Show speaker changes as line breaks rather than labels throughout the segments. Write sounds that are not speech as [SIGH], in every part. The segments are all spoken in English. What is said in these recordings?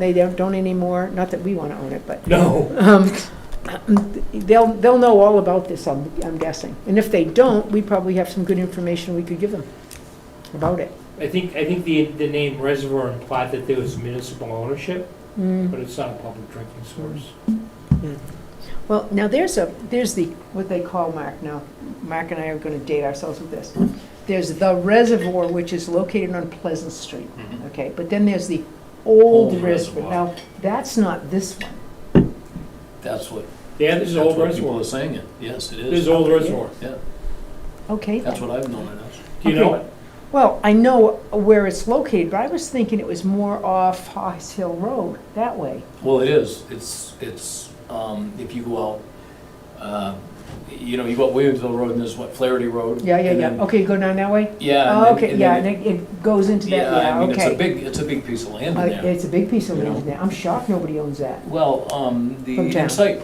They don't don't anymore, not that we want to own it,
[LAUGHS]
but
No.
um, they'll, they'll know all about this, I'm I'm guessing. And if they don't, we probably have some good information we could give them about it.
I think, I think the, the name reservoir implied that there was municipal ownership,
Mm.
but it's not a public drinking source.
Well, now there's a, there's the, what they call, Mark, now, Mark and I are going to date ourselves with this. There's the reservoir, which is located on Pleasant Street,
Mhm.
okay? But then there's the old
Old
reservoir.
reservoir.
Now, that's not this one.
That's what,
Yeah, this
that's
is old
what people
reservoir.
are saying it, yes, it
This is
is.
old reservoir.
Yeah,
Okay.
that's what I've known it as.
Do you
Okay.
know it?
Well, I know where it's located, but I was thinking it was more off Hoss Hill Road, that way.
Well, it is, it's, it's, um, if you go out, uh, you know, you go up Williamsville Road and there's what, Flaherty Road?
Yeah, yeah,
and
yeah.
then-
Okay, you go down that way?
Yeah. and
Oh,
then-
Okay,
and
yeah,
then
and
it-
it it goes into that,
Yeah,
yeah,
I mean, it's a
okay.
big, it's a big piece of land
Uh,
in there.
It's a big piece of
you know.
land there. I'm shocked nobody owns that.
Well, um, the
From town.
Insight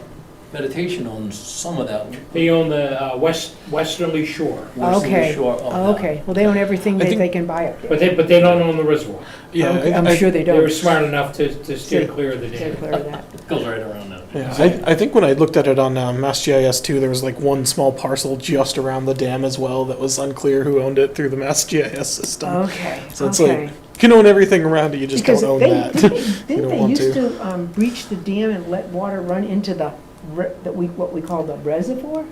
Meditation owns some of that.
They own the uh, west, westerly shore,
Western
Okay.
Shore of
Oh,
that.
Okay, well, they own everything
I
that
think-
they can buy up there.
but they, but they don't own the reservoir.
Yeah,
Okay,
I-
I'm
I-
sure they
They were
don't.
smart enough to, to steer
Sure.
clear of the
They're
dam.
clear of that.
Goes right around that.
yeah, I, I think when I looked at it on um, MassGIS too, there was like one small parcel just around the dam as well that was unclear who owned it through the MassGIS system.
Okay,
So it's like,
okay.
You can own everything around it, you just
Uh-huh. Because
don't own
they-
that.
didn't they- Didn't
don't
they
want
used
to.
to um, breach the dam and let water run into the, re- that we, what we call the reservoir?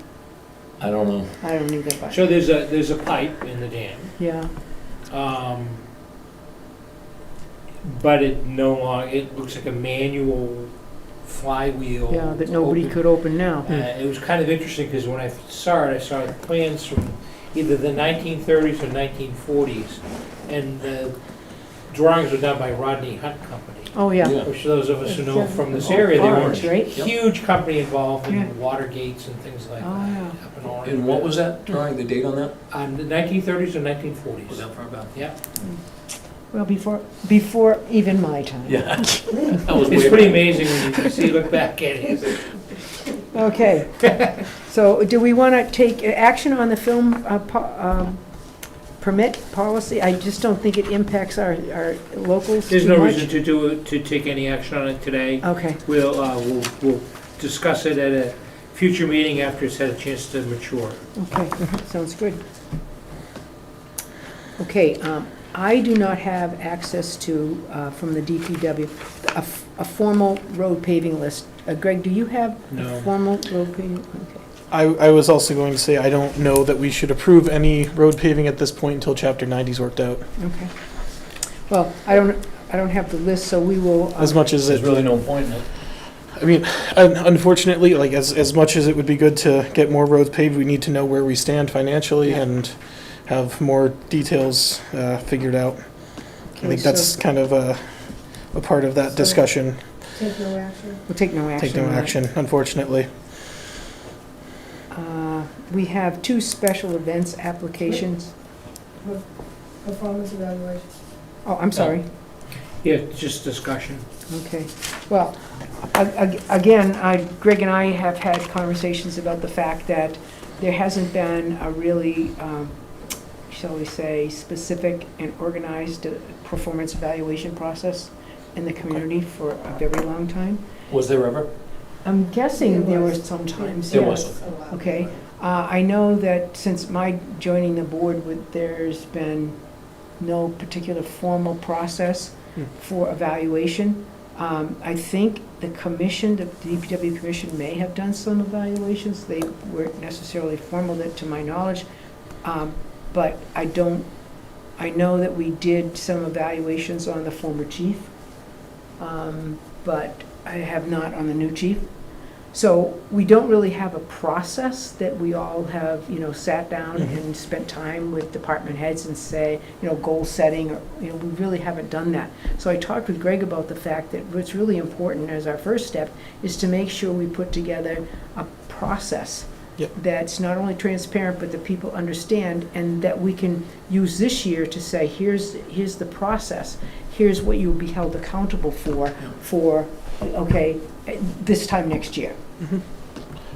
I don't know.
I don't even know.
So there's a, there's a pipe in the dam.
Yeah.
Um, But it no longer, it looks like a manual flywheel.
Yeah, that nobody
open-
could open now.
Uh, It was kind of interesting because when I saw it, I saw plans from either the 1930s or 1940s. And the drawings were done by Rodney Hunt Company,
Oh, yeah.
Yeah.
which those of us who know from this area, they were
Orange, right?
Yep.
huge company involved
Yeah.
in water gates and things like
Oh,
that.
yeah.
up in Orange.
And what was that drawing, the date on that?
Um, The 1930s or
Was
1940s.
that far back?
Yeah.
Well, before, before even my time.
Yeah. [LAUGHS] That was
It's
way
pretty
back.
amazing when you see, look back at it.
[LAUGHS]
[LAUGHS]
Okay. So do we want to take action on the film uh, po- um, permit policy? I just don't think it impacts our, our locals
There's
too
no
much.
reason to do, it- to take any action on it today.
Okay,
We'll, uh, we'll, we'll discuss it at a future meeting after it's had a chance to mature.
okay, sounds good. Okay, um, I do not have access to, uh, from the DPW, a f- a formal road paving list. Uh, Greg, do you have a
No.
formal road paving? Okay.
I, I was also going to say, I don't know that we should approve any road paving at this point until Chapter 90's worked out,
Okay. Well, I don't, I don't have the list, so we will. uh,
as much as
There's
it
really no point in it.
I mean, un- unfortunately, like as, as much as it would be good to get more roads paved, we need to know where we stand financially
Yeah.
and have more details uh, figured out. I
okay,
think
so
that's kind of a, a part of that
So-
discussion.
Take no action.
We'll take no action.
Take no
on that.
action, unfortunately.
Uh, We have two special events applications.
Performance evaluation.
Oh, I'm sorry.
Yeah, just discussion.
Okay, well, a- a- again, I- Greg and I have had conversations about the fact that there hasn't been a really, um, shall we say, specific and organized uh, performance evaluation process in the community for a very long time.
Was there ever?
I'm guessing there
There
were
was.
some times,
There
yes.
was.
Okay. Uh, I know that since my joining the board with, there's been no particular formal process
Hmm.
for evaluation. Um, I think the commission, the DPW commission may have done some evaluations. They weren't necessarily formal that- to my knowledge. Um, but I don't, I know that we did some evaluations on the former chief. Um, but I have not on the new chief. So we don't really have a process that we all have, you know, sat down
Mhm.
and spent time with department heads and say, you know, goal setting, or, you know, we really haven't done that. So I talked with Greg about the fact that what's really important as our first step is to make sure we put together a process
Yep.
that's not only transparent, but that people understand, and that we can use this year to say, here's, here's the process, here's what you'll be held accountable for, for, okay, eh, this time next year.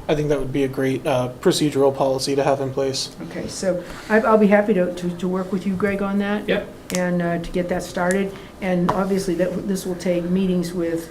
I think that would be a great uh, procedural policy to have in place.
Okay, so I- I'll be happy to, to, to work with you, Greg, on that.
Yep.
And uh, to get that started. And obviously, that, this will take meetings with